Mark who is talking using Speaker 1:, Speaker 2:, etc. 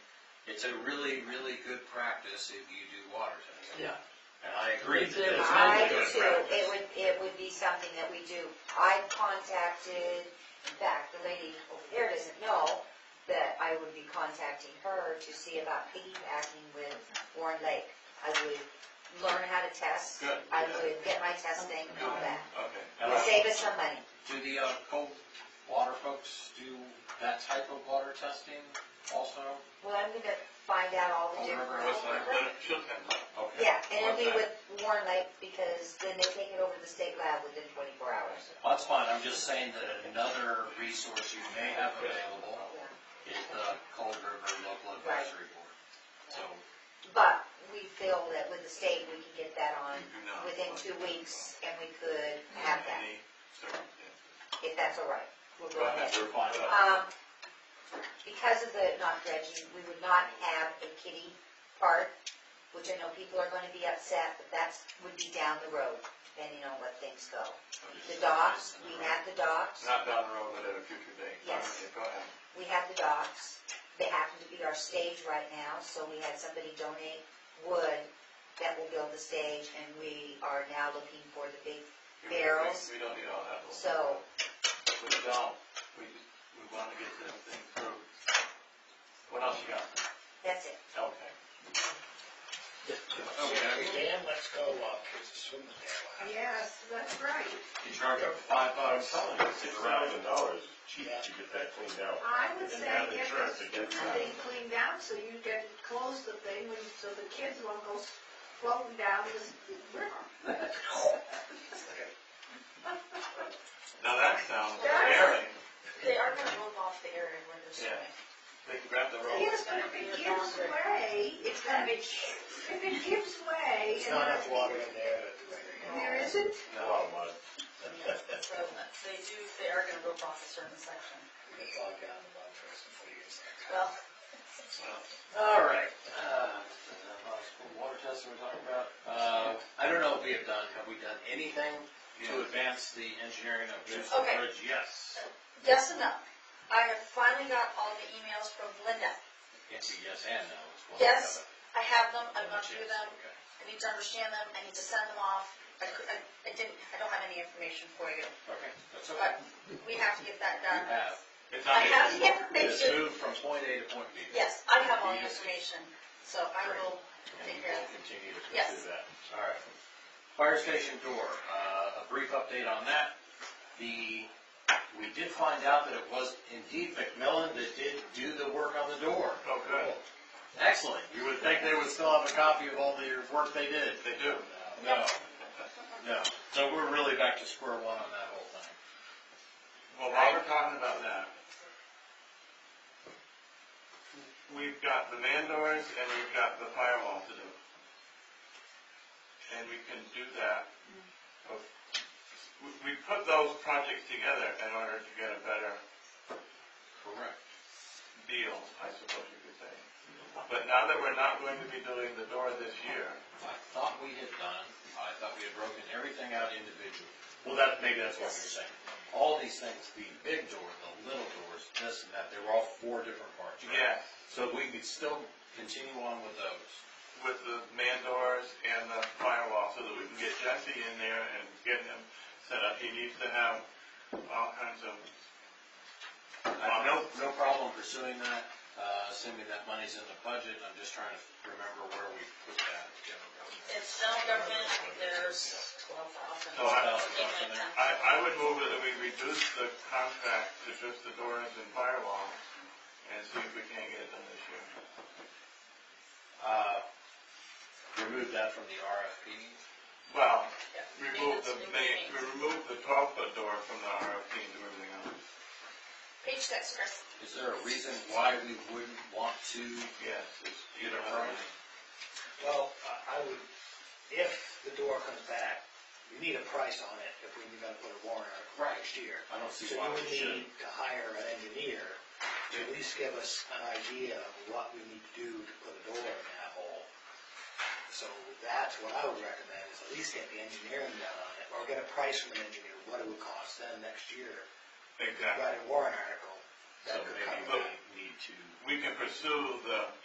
Speaker 1: it's a really, really good practice if you do water testing.
Speaker 2: Yeah.
Speaker 1: And I agree that
Speaker 2: It's
Speaker 1: that's
Speaker 2: not
Speaker 1: not
Speaker 3: I
Speaker 1: a
Speaker 3: do
Speaker 1: good
Speaker 3: too, it
Speaker 1: practice.
Speaker 3: would, it would be something that we do. I contacted, in fact, the lady over there doesn't know that I would be contacting her to see about piggybacking with Warren Lake. I would learn how to test,
Speaker 1: Good.
Speaker 3: I would get my testing and all that.
Speaker 1: Okay.
Speaker 3: It
Speaker 1: And
Speaker 3: would
Speaker 1: I-
Speaker 3: save us some money.
Speaker 1: Do the, uh, cold water folks do that type of water testing also?
Speaker 3: Well, I'm gonna find out all the
Speaker 1: Over
Speaker 3: different.
Speaker 1: what's that? Okay.
Speaker 3: Yeah, and it'll be
Speaker 1: Okay.
Speaker 3: with Warren Lake because then they take it over to the state lab within twenty-four hours.
Speaker 1: That's fine, I'm just saying that another resource you may have available
Speaker 3: Yeah.
Speaker 1: is the Cold River Local Advisory Board. So, uh,
Speaker 3: But we feel that with the state, we can get that on within two weeks, and we could have that, if that's all right. We'll go ahead.
Speaker 1: we're fine.
Speaker 3: Um, because of the not dredging, we would not have a kitty park, which I know people are gonna be upset, but that's, would be down the road, depending on what things go. The docks, we have the docks,
Speaker 4: Not down the road, but at a future date.
Speaker 3: Yes.
Speaker 4: Okay, Go ahead.
Speaker 3: we have the docks, they happen to be our stage right now, so we had somebody donate wood that will build the stage, and we are now looking for the big
Speaker 4: We- we-
Speaker 3: Barrels.
Speaker 4: We don't need all that. though.
Speaker 3: So,
Speaker 4: We don't, we just, we wanna get this thing through. What else you got?
Speaker 3: that's it.
Speaker 4: Okay.
Speaker 1: Okay,
Speaker 2: Dan, let's go walk, there's a swimming pool.
Speaker 5: Yes, that's right.
Speaker 1: you charge up five
Speaker 6: I'm
Speaker 1: bucks.
Speaker 6: telling you, six thousand dollars is cheap to get that cleaned out.
Speaker 5: I would say
Speaker 6: And have
Speaker 5: get
Speaker 6: insurance
Speaker 5: this
Speaker 6: to get
Speaker 5: thing cleaned out so you can close the thing when, so the kids won't go floating down this river.
Speaker 4: Now that sounds
Speaker 5: Guys.
Speaker 4: daring.
Speaker 7: They are gonna move off the area where they're
Speaker 4: Yeah.
Speaker 7: swimming.
Speaker 4: They can grab the
Speaker 5: See,
Speaker 4: rope.
Speaker 5: it's gonna be Gibbs Way, it's gonna be, it's gonna be Gibbs Way.
Speaker 2: There's
Speaker 5: and
Speaker 2: not
Speaker 5: then-
Speaker 2: enough water in there to.
Speaker 5: There isn't?
Speaker 6: A lot of mud.
Speaker 7: Yeah, it's prevalent. They do, they are gonna move off a certain section.
Speaker 2: We could talk down the mud for some years.
Speaker 7: Well,
Speaker 1: All right. uh, School water testing we're talking about. Uh, I don't know if we have done, have we done anything to advance the engineering of this
Speaker 7: Okay.
Speaker 1: bridge? Yes.
Speaker 7: yes and no. I have finally got all the emails from Linda.
Speaker 1: It's a yes and no. it's one or the
Speaker 7: Yes,
Speaker 1: other.
Speaker 7: I have them, I've
Speaker 1: One
Speaker 7: gone through
Speaker 1: chance,
Speaker 7: them,
Speaker 1: okay.
Speaker 7: I need to understand them, I need to send them off. I cou- I, I didn't, I don't have any information for you,
Speaker 1: Okay, that's
Speaker 7: but
Speaker 1: okay.
Speaker 7: we have to get that
Speaker 1: You
Speaker 7: done.
Speaker 1: have.
Speaker 4: It's
Speaker 7: I
Speaker 4: not
Speaker 7: have
Speaker 4: easy.
Speaker 7: the
Speaker 1: It's
Speaker 7: information.
Speaker 1: moved from point A to point B.
Speaker 7: Yes, I have all the information, so I will
Speaker 1: And we
Speaker 7: figure
Speaker 1: will
Speaker 7: out.
Speaker 1: continue to
Speaker 7: Yes.
Speaker 1: pursue that. All right. Fire station door, uh, a brief update on that. The, we did find out that it was indeed McMillan that did do the work on the door.
Speaker 4: Oh, good.
Speaker 1: Excellent. You would think they would still have a copy of all the work they did.
Speaker 4: They do.
Speaker 1: No, no. So we're really back to square one on that whole thing.
Speaker 4: Well, while we're talking about that, we've got the man doors and we've got the firewall to do. And we can do that. bef- we- We put those projects together in order to get a better
Speaker 1: Correct.
Speaker 4: deal, I suppose you could say. But now that we're not going to be doing the door this year,
Speaker 1: I thought we had done, I thought we had broken everything out individually.
Speaker 6: Well, that, maybe that's
Speaker 1: That's what you're saying. All these things, the big door, the little doors, this and that, they were all four different parts. right?
Speaker 4: yes,
Speaker 1: So we could still continue on with those.
Speaker 4: with the man doors and the firewall, so that we can get Jesse in there and get him set up. He needs to have all kinds of Uh,
Speaker 1: I have no, no problem pursuing that, uh, assuming that money's in the budget, I'm just trying to remember where we put that.
Speaker 7: It's general government, there's twelve thousand.
Speaker 4: So Oh, I-
Speaker 1: Something like that.
Speaker 4: I, I would move that we reduce the contract to just the doors and firewall and see if we can get it done this year.
Speaker 1: Uh, remove that from the RFP.
Speaker 4: Well, remove the main, we remove the twelve foot door from the RFP and do everything else.
Speaker 7: Page six, Chris.
Speaker 1: Is there a reason why we wouldn't want to
Speaker 4: Yes, it's, you
Speaker 1: get a
Speaker 4: know,
Speaker 1: permit?
Speaker 2: Well, I I would, if the door comes back, we need a price on it if we gotta put a warrant on it next year.
Speaker 1: I don't
Speaker 2: So
Speaker 1: see
Speaker 2: you
Speaker 1: why
Speaker 2: would
Speaker 1: we
Speaker 2: need
Speaker 1: shouldn't.
Speaker 2: to hire an engineer to at least give us an idea of what we need to do to put a door in that hole. So that's what I would recommend, is at least get the engineering done on it, or get a price from an engineer, what it would cost them next year.
Speaker 4: exactly.
Speaker 2: Write a warrant article
Speaker 1: So
Speaker 2: that could
Speaker 1: maybe
Speaker 2: cover
Speaker 1: we
Speaker 2: that.
Speaker 1: need to.
Speaker 4: We can pursue the